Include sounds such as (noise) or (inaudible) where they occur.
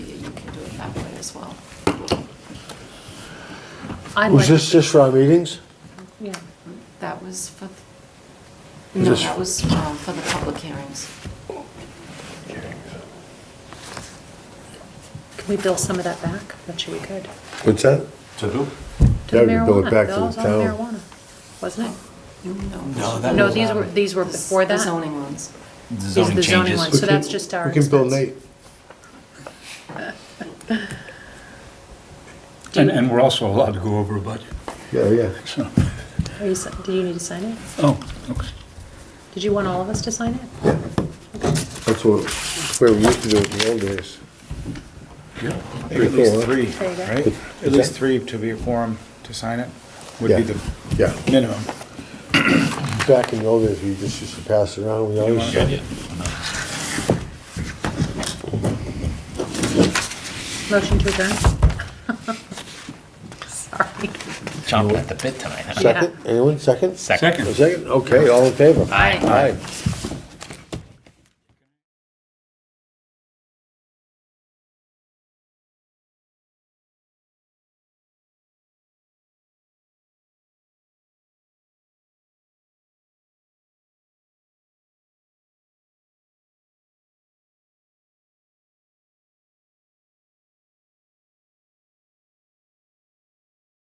as well. I'd Was like- this just for our meetings? Yeah, that was for, th- Is no, this- that was um, for the public hearings. Can we bill some of that back? I'm sure we could. What's that? To who? To Yeah, the we could bill it marijuana, back to the bills on town. marijuana, wasn't it? No, that No, was these on were, these were the- before The that. zoning ones. The These are zoning the zoning changes. ones, so that's We can- just our We can bill expense. Nate. And, and we're also allowed to go over a budget, Yeah, yeah. so, Are you, si- do you need to sign it? oh, okay. Did you want all of us to sign it? That's what, where we used to do it in the old days. Yeah. Pretty At least cool, huh? three, There you go. right? At least three to be a quorum to sign it would Yeah. be the Yeah. minimum. Back in the old days, we just used to pass it around, we always, Motion to adjourn? (laughs) Sorry. Chomping at the bit tonight, huh? second, anyone, second? Second. A second, okay, all in favor? Aye. Aye.